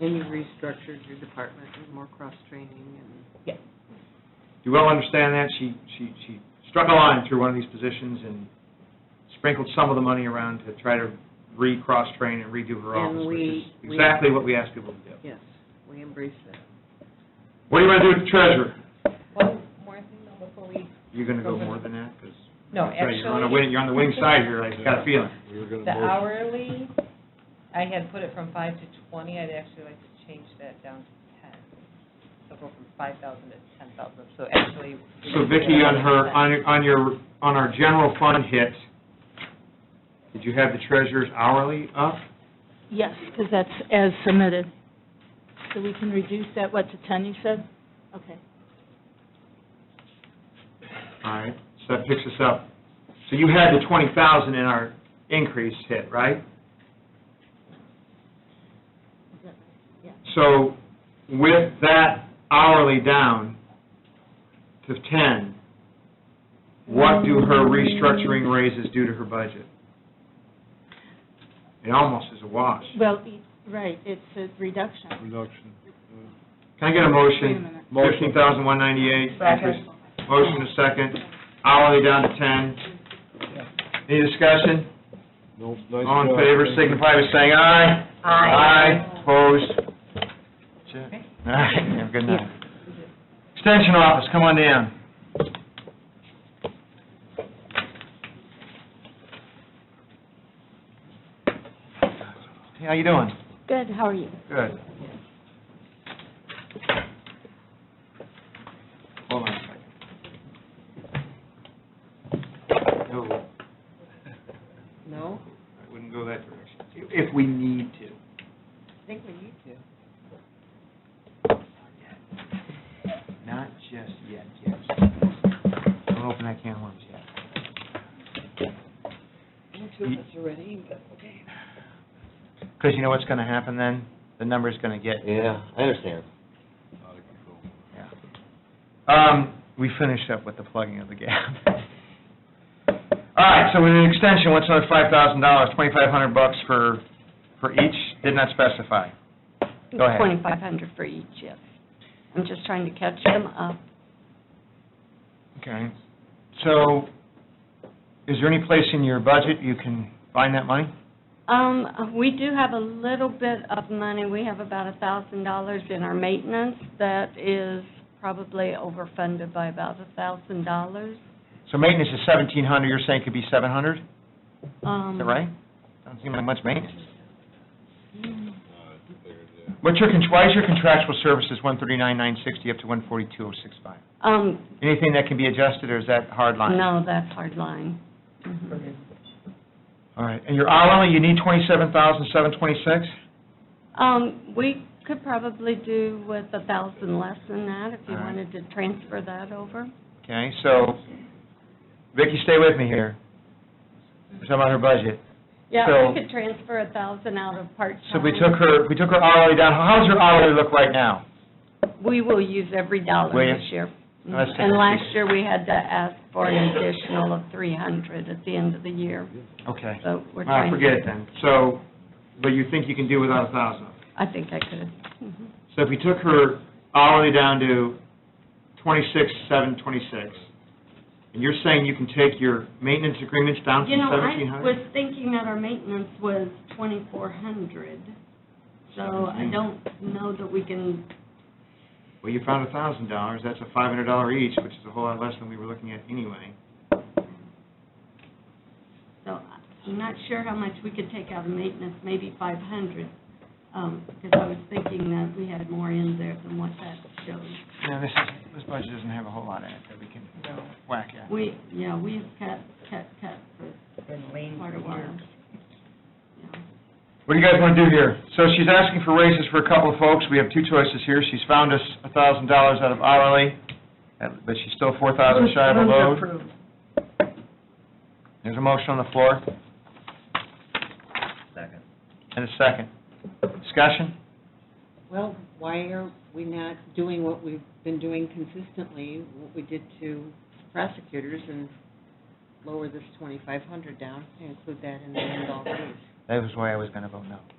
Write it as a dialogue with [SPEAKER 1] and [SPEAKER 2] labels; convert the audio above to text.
[SPEAKER 1] And you restructured your department with more cross-training and...
[SPEAKER 2] you well understand that, she, she, she struck a line through one of these positions and sprinkled some of the money around to try to re-cross-train and redo her
[SPEAKER 1] And
[SPEAKER 2] office, which is
[SPEAKER 1] we- we-
[SPEAKER 2] exactly what we asked people to do.
[SPEAKER 1] Yes, we embrace that.
[SPEAKER 2] What do you want to do with the treasurer?
[SPEAKER 3] One more thing though before we,
[SPEAKER 2] You're going to go more than that, because
[SPEAKER 3] no,
[SPEAKER 2] you're on the
[SPEAKER 3] actually,
[SPEAKER 2] wing, you're on the wing side here, I got a feeling.
[SPEAKER 4] We were gonna
[SPEAKER 3] the
[SPEAKER 4] motion-
[SPEAKER 3] hourly, I had put it from five to twenty, I'd actually like to change that down to ten. So go from five thousand to ten thousand, so actually. we
[SPEAKER 2] So
[SPEAKER 3] did
[SPEAKER 2] Vicki,
[SPEAKER 3] that
[SPEAKER 2] on her,
[SPEAKER 3] 10.
[SPEAKER 2] on your- on your, on our general fund hit, did you have the treasurer's hourly up?
[SPEAKER 5] Yes, because that's as submitted. So we can reduce that, what, to 10, you said? Okay.
[SPEAKER 2] All right, so that picks us up. So you had the twenty thousand in our increase hit, right? So with that hourly down to ten, what do her restructuring raises do to her budget? It almost is a wash.
[SPEAKER 5] Well, e- right, it's a reduction.
[SPEAKER 4] Reduction.
[SPEAKER 2] Can I get a
[SPEAKER 5] Wait a
[SPEAKER 2] motion?
[SPEAKER 5] minute.
[SPEAKER 2] Fifteen thousand one ninety-eight. Motion to second, hourly down to ten. Any discussion?
[SPEAKER 4] No, nice
[SPEAKER 2] All in
[SPEAKER 4] job.
[SPEAKER 2] favor,
[SPEAKER 4] Thank you.
[SPEAKER 2] signify by saying aye.
[SPEAKER 3] Aye.
[SPEAKER 2] Aye, opposed. That's it. All right, have a good night. Extension office, come on down. Hey, how you doing?
[SPEAKER 5] Good, how are you?
[SPEAKER 2] Good. Hold on a second. No,
[SPEAKER 1] No?
[SPEAKER 2] I wouldn't go that direction, if we need to.
[SPEAKER 1] I think we need to.
[SPEAKER 2] Not just yet, yes. Don't open that can of worms yet.
[SPEAKER 1] Two of us are ready, but okay.
[SPEAKER 2] Because you know what's going to happen then? The number's going to get,
[SPEAKER 6] Yeah, I understand.
[SPEAKER 4] Out of control.
[SPEAKER 2] yeah. Um, we finished up with the plugging of the gap. All right, so with an extension, what's another five thousand dollars, twenty-five hundred bucks for, for each? Did not specify. Go ahead.
[SPEAKER 7] Twenty-five hundred for each, yes. I'm just trying to catch them up.
[SPEAKER 2] Okay. So, is there any place in your budget you can find that money?
[SPEAKER 7] Um, we do have a little bit of money, we have about a thousand dollars in our maintenance, that is probably overfunded by about a thousand dollars.
[SPEAKER 2] So maintenance is seventeen hundred, you're saying it could be seven hundred, is
[SPEAKER 7] Um,
[SPEAKER 2] that right? Doesn't seem like much maintenance.
[SPEAKER 4] Uh, I figured, yeah.
[SPEAKER 2] What's your, con- why is your contractual services one thirty-nine, nine sixty up to one forty-two, oh six five?
[SPEAKER 7] Um,
[SPEAKER 2] Anything that can be adjusted, or is that hard line?
[SPEAKER 7] no, that's hard line. Mhm.
[SPEAKER 2] All right, and your hourly, you need twenty-seven thousand, seven twenty-six?
[SPEAKER 7] Um, we could probably do with a thousand less than that, if you
[SPEAKER 2] All right.
[SPEAKER 7] wanted to transfer that over.
[SPEAKER 2] Okay, so, Vicki, stay with me here. We're talking about her budget.
[SPEAKER 7] Yeah,
[SPEAKER 2] So-
[SPEAKER 7] we could transfer a thousand out of part-time.
[SPEAKER 2] So if we took her, if we took her hourly down, how does her hourly look right now?
[SPEAKER 7] We will use every
[SPEAKER 2] Will
[SPEAKER 7] dollar
[SPEAKER 2] you?
[SPEAKER 7] this year.
[SPEAKER 2] No, that's-
[SPEAKER 7] And last year, we had to ask for an additional of three hundred at the end of the year,
[SPEAKER 2] Okay.
[SPEAKER 7] so we're
[SPEAKER 2] All right,
[SPEAKER 7] trying.
[SPEAKER 2] forget it then. So, but you think you can do without a thousand?
[SPEAKER 7] I think I could. Mhm.
[SPEAKER 2] So if we took her hourly down to twenty-six, seven twenty-six, and you're saying you can take your maintenance agreements down
[SPEAKER 7] You
[SPEAKER 2] from
[SPEAKER 7] know,
[SPEAKER 2] seventeen
[SPEAKER 7] I
[SPEAKER 2] hundred?
[SPEAKER 7] was thinking that our maintenance was twenty-four hundred, so I
[SPEAKER 2] Seventeen.
[SPEAKER 7] don't know that we can,
[SPEAKER 2] Well, you found a thousand dollars, that's a five hundred dollar each, which is a whole lot less than we were looking at anyway.
[SPEAKER 7] so I'm not sure how much we could take out of maintenance, maybe five hundred. Um, because I was thinking that we had more in there than what that shows.
[SPEAKER 2] Yeah, this is, this budget doesn't have a whole lot in it that we can whack at.
[SPEAKER 7] We, yeah, we have cut, cut, cut for
[SPEAKER 3] Been lean
[SPEAKER 7] quite a
[SPEAKER 3] for years.
[SPEAKER 7] while. Yeah.
[SPEAKER 2] What do you guys want to do here? So she's asking for raises for a couple of folks, we have two choices here, she's found us a thousand dollars out of hourly, uh, but she's still four thousand shy of a load. There's a motion on the floor. Second. And a second. Discussion?
[SPEAKER 1] Well, why are we not doing what we've been doing consistently, what we did to prosecutors and lower this twenty-five hundred down and include that in the end all raise?
[SPEAKER 2] That was why I was going to vote no.